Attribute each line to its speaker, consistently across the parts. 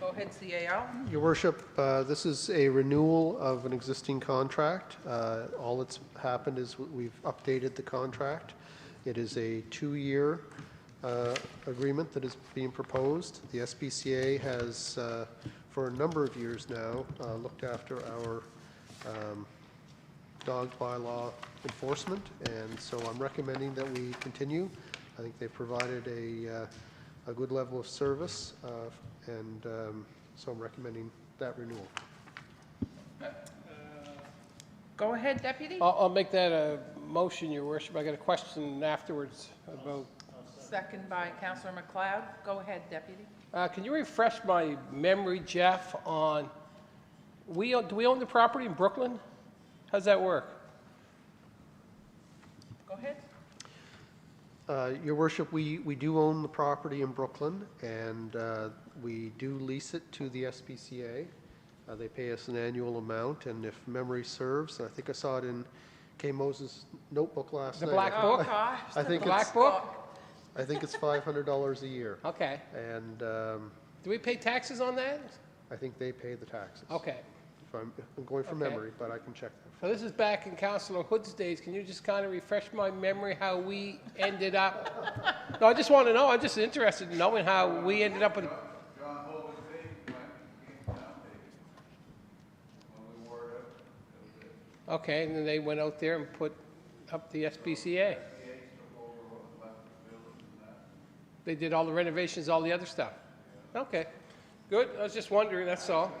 Speaker 1: Go ahead, CAO.
Speaker 2: Your worship, uh, this is a renewal of an existing contract. Uh, All that's happened is we- we've updated the contract. It is a two-year uh, agreement that is being proposed. The SPCA has, uh, for a number of years now, uh, looked after our um, dog bylaw enforcement, and so I'm recommending that we continue. I think they provided a, uh, a good level of service, uh, and um, so I'm recommending that renewal.
Speaker 1: Go ahead, Deputy.
Speaker 3: I'll, I'll make that a motion, your worship. I got a question afterwards about,
Speaker 1: Second by Counselor McLeod. Go ahead, Deputy.
Speaker 3: uh, can you refresh my memory, Jeff, on, we, own- do we own the property in Brooklyn? How's that work?
Speaker 1: Go ahead.
Speaker 2: Uh, Your worship, we, we do own the property in Brooklyn, and uh, we do lease it to the SPCA. Uh, They pay us an annual amount, and if memory serves, I think I saw it in Kay Moses' notebook last
Speaker 3: The
Speaker 2: night.
Speaker 3: black book?
Speaker 1: Oh, gosh.
Speaker 2: I
Speaker 1: the
Speaker 2: think
Speaker 3: it's-
Speaker 1: black
Speaker 2: I think it's $500 a year,
Speaker 3: Okay.
Speaker 2: and um,
Speaker 3: Do we pay taxes on that?
Speaker 2: I think they pay the taxes.
Speaker 3: Okay.
Speaker 2: If I'm, I'm going from
Speaker 3: Okay.
Speaker 2: memory, but I can check that.
Speaker 3: So this is back in Councilor Hood's days. Can you just kind of refresh my memory how we ended up? No, I just want to know. I'm just interested in knowing how we ended up with.
Speaker 4: John Holden Davis, when he came down, Davis, when we wore it up,
Speaker 3: Okay, and then they went out there and put up the SPCA. They did all the renovations, all the other stuff. Okay, good. I was just wondering, that's all.
Speaker 1: book.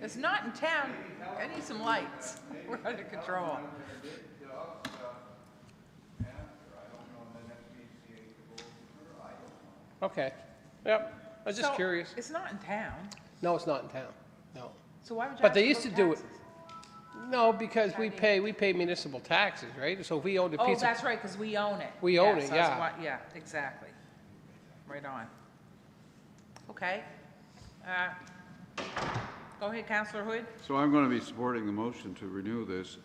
Speaker 1: It's not in town. I need some lights. We're out of control.
Speaker 3: Okay, yep. I was just
Speaker 1: So,
Speaker 3: curious.
Speaker 1: It's not in town,
Speaker 3: No, it's not in town. No.
Speaker 1: so why would you
Speaker 3: But
Speaker 1: have
Speaker 3: they used
Speaker 1: book
Speaker 3: to do it.
Speaker 1: taxes?
Speaker 3: No, because we pay, we pay municipal taxes, right? So if we owned a
Speaker 1: Oh,
Speaker 3: piece of
Speaker 1: that's right, because we own it.
Speaker 3: We own
Speaker 1: Yes,
Speaker 3: it,
Speaker 1: I was
Speaker 3: yeah.
Speaker 1: wa- Yeah, exactly. Right on. Okay. Uh, Go ahead, Counselor Hood.
Speaker 4: So I'm going to be supporting the motion to renew this.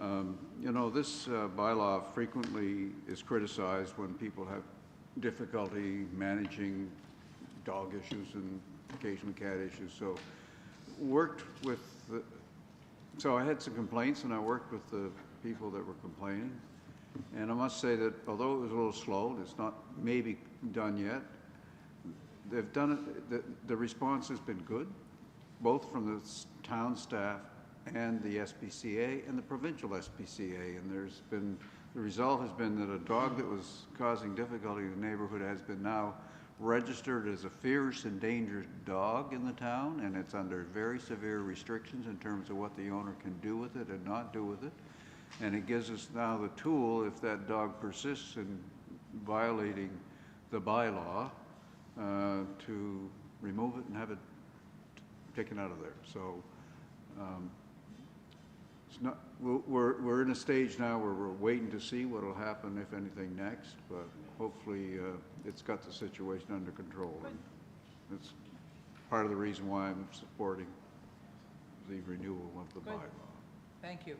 Speaker 4: Um, You know, this uh, bylaw frequently is criticized when people have difficulty managing dog issues and occasionally cat issues. So worked with, the- so I had some complaints and I worked with the people that were complaining. And I must say that although it was a little slow, and it's not maybe done yet, They've done it, the, the response has been good, both from the s- town staff and the SPCA and the provincial SPCA. And there's been, the result has been that a dog that was causing difficulty in the neighborhood has been now registered as a fierce endangered dog in the town, and it's under very severe restrictions in terms of what the owner can do with it and not do with it. And it gives us now the tool, if that dog persists in violating the bylaw, uh, to remove it and have it taken out of there. So um, it's not, we're- we're, we're in a stage now where we're waiting to see what'll happen, if anything, next, but hopefully uh, it's got the situation under control. And That's part of the reason why I'm supporting the renewal of the
Speaker 1: Good.
Speaker 4: bylaw.
Speaker 1: Thank you.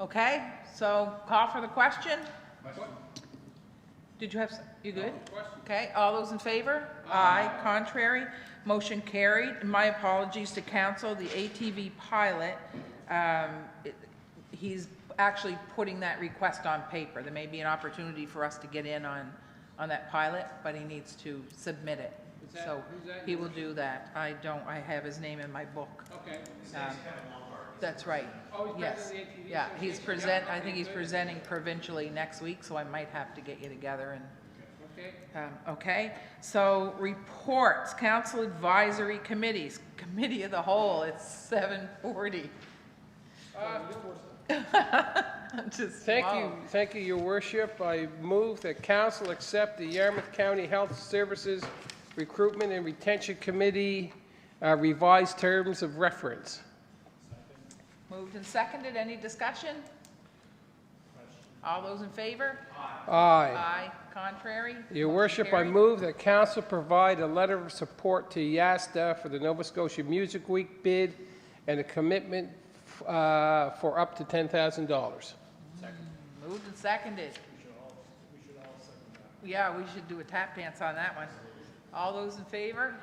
Speaker 1: Okay, so call for the question. Did you have, s- you good? Okay, all those in favor? Aye. Contrary? Motion carried. And My apologies to council, the ATV pilot, um, it- he's actually putting that request on paper. There may be an opportunity for us to get in on, on that pilot, but he needs to submit it.
Speaker 3: that-
Speaker 1: So
Speaker 3: who's that?
Speaker 1: he will do that. I don't, I have his name in my book.
Speaker 3: Okay.
Speaker 1: Um, That's right.
Speaker 3: Oh, he's
Speaker 1: Yes.
Speaker 3: president of the ATV
Speaker 1: Yeah, he's
Speaker 3: Association.
Speaker 1: present,
Speaker 3: Yeah,
Speaker 1: I
Speaker 3: okay,
Speaker 1: think he's
Speaker 3: good.
Speaker 1: presenting provincially next week, so I might have to get you together
Speaker 3: Okay.
Speaker 1: and, um, okay? So reports, council advisory committees, committee of the whole, it's seven forty. Just.
Speaker 3: Uh, Thank you,
Speaker 1: wow.
Speaker 3: thank you, your worship. I move that council accept the Yarmouth County Health Services Recruitment and Retention Committee uh, revised terms of reference.
Speaker 1: Moved and seconded, any discussion? All those in favor?
Speaker 3: Aye.
Speaker 1: Aye, contrary?
Speaker 3: Your
Speaker 1: Motion
Speaker 3: worship, I
Speaker 1: carried.
Speaker 3: move that council provide a letter of support to YASTA for the Nova Scotia Music Week bid and a commitment uh, for up to $10,000.
Speaker 1: Moved and seconded. We should all, we should all second that. Yeah, we should do a tap dance on that one. All those in favor?